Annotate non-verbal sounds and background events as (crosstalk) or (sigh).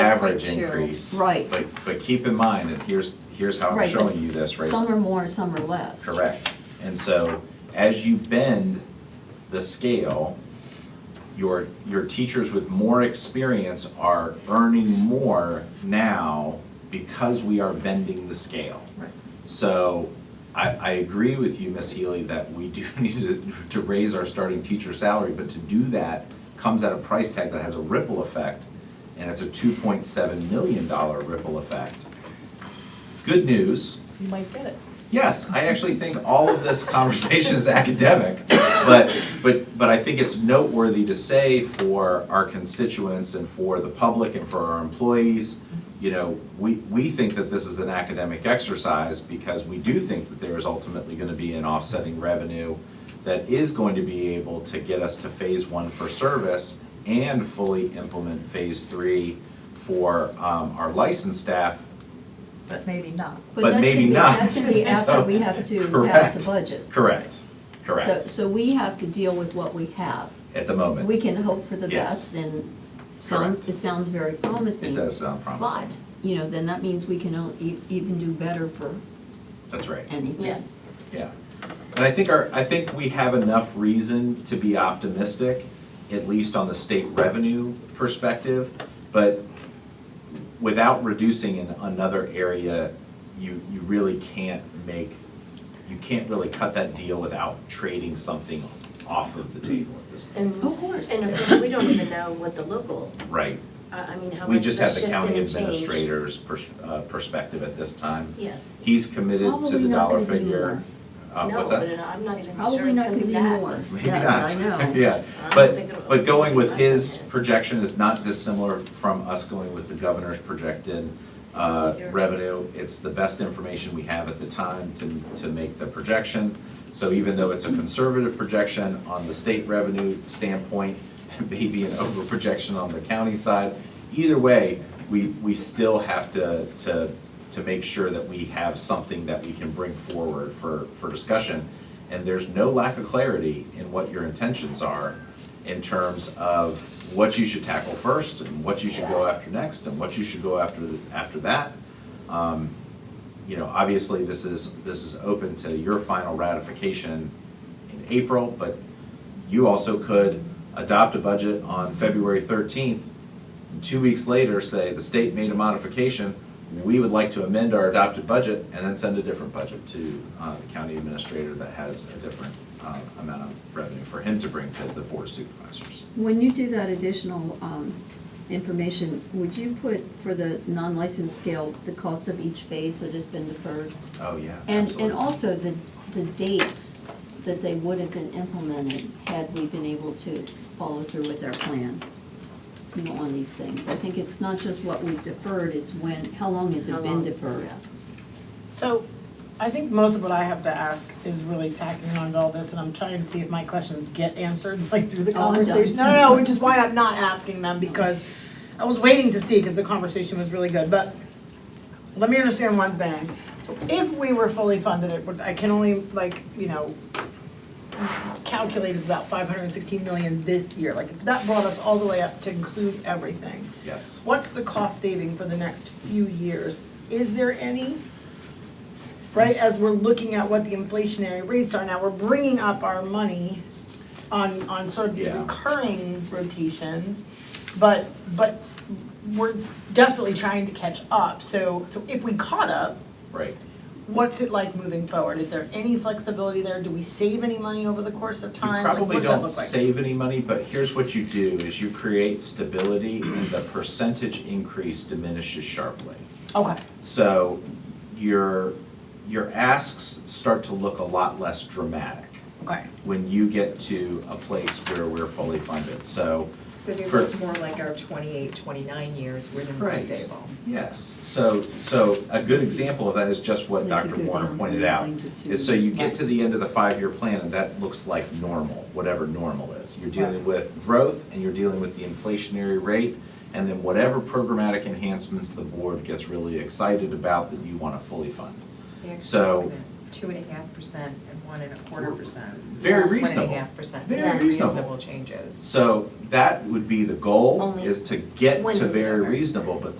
average 5.2. increase. Right. But, but keep in mind, and here's, here's how I'm Right, showing you this right Some are more, some are less. Correct. And so as you bend the scale, your, your teachers with more experience are earning more now because we are bending the scale. Right. So I, I agree with you, Ms. Healy, that we do (laughs) need to, to raise our starting teacher salary, but to do that comes at a price tag that has a ripple effect, and it's a two point seven million dollar ripple effect. Good news, You might get it. Yes, I actually think all of this conversation is academic, but, but, but I think it's noteworthy to say for our constituents and for the public and for our employees, you know, we, we think that this is an academic exercise because we do think that there is ultimately gonna be an offsetting revenue that is going to be able to get us to phase one for service and fully implement phase three for, um, our licensed staff But maybe not. But that's maybe gonna be- not. That's gonna be after (laughs) So, we have to pass correct. the budget. Correct, correct, So, so we have to deal with what we have. at the moment. We can hope for the Yes. best and sounds, Correct. it sounds very promising. It does sound promising. But, you know, then that means we can o- e- even do better for That's right, anything. Yes. yeah. And I think our, I think we have enough reason to be optimistic, at least on the state revenue perspective, but without reducing in another area, you, you really can't make, you can't really cut that deal without trading something off of the table at this point. And, Of course. and of course, we don't even know what the local, Right, I, I mean, how we much of just a have the shift in county change. administrator's pers- uh, perspective at this time. Yes. He's committed to Probably the not dollar gonna be figure. Uh, No, what's but that? it- I'm not even sure Probably it's not gonna gonna be be that. more. Maybe not. Yes, I know. (laughs) Yeah, I don't think it'll- but, but going with less than his this. projection is not dissimilar from us going with the governor's projected uh, Yours. revenue. It's the best information we have at the time to, to make the projection. So even though it's a conservative projection on the state revenue standpoint, (laughs) maybe an over projection on the county side, either way, we, we still have to, to, to make sure that we have something that we can bring forward for, for discussion. And there's no lack of clarity in what your intentions are in terms of what you should tackle first and what you should go after next and what you should go after, after that. Um, You know, obviously, this is, this is open to your final ratification in April, but you also could adopt a budget on February thirteenth. and Two weeks later, say, the state made a modification, we would like to amend our adopted budget and then send a different budget to uh, the county administrator that has a different uh, amount of revenue for him to bring to the board of supervisors. When you do that additional um, information, would you put for the non-licensed scale, the cost of each phase that has been deferred? Oh, yeah, And, absolutely. and also the, the dates that they would have been implemented had we been able to follow through with our plan, you know, on these things. I think it's not just what we've deferred, it's when, how long has How it been long? deferred? So I think most of what I have to ask is really tacking on to all this, and I'm trying to see if my questions get answered, (laughs) like through the Oh, I'm done. conversation. No, no, no, which is why I'm not asking them, because I was waiting to see, because the conversation was really good, but let me understand one thing. If we were fully funded, it would, I can only, like, you know, calculate is about five hundred and sixteen million this year, like, if that brought us all the way up to include everything. Yes. What's the cost saving for the next few years? Is there any? Right, as we're looking at what the inflationary rates are now, we're bringing up our money on, on sort of these Yeah. recurring rotations. But, but we're desperately trying to catch up, so, so if we caught up, Right. what's it like moving forward? Is there any flexibility there? Do we save any money over the course of You time? Like, probably what does that don't look like? save any money, but here's what you do, is you create stability and the percentage increase diminishes sharply. Okay, So your, your asks start to look a lot less dramatic okay. when you get to a place where we're fully funded, so. So they for- look more like our 28, 29 years where they're more Right. stable. Yes, so, so a good example of that is just what We could Dr. go Warner down pointed from out. nine to Is so two. you get to the end of the five-year plan and that looks like normal, whatever normal is. You're dealing Right. with growth and you're dealing with the inflationary rate and then whatever programmatic enhancements the board gets really excited about that you wanna fully fund. They actually So- went Two and a half percent and one and a quarter percent. Very One and reasonable. a half percent. Very Yeah, reasonable. Reasonable changes. So that would be the goal, Only is to get one to million very dollars. reasonable, but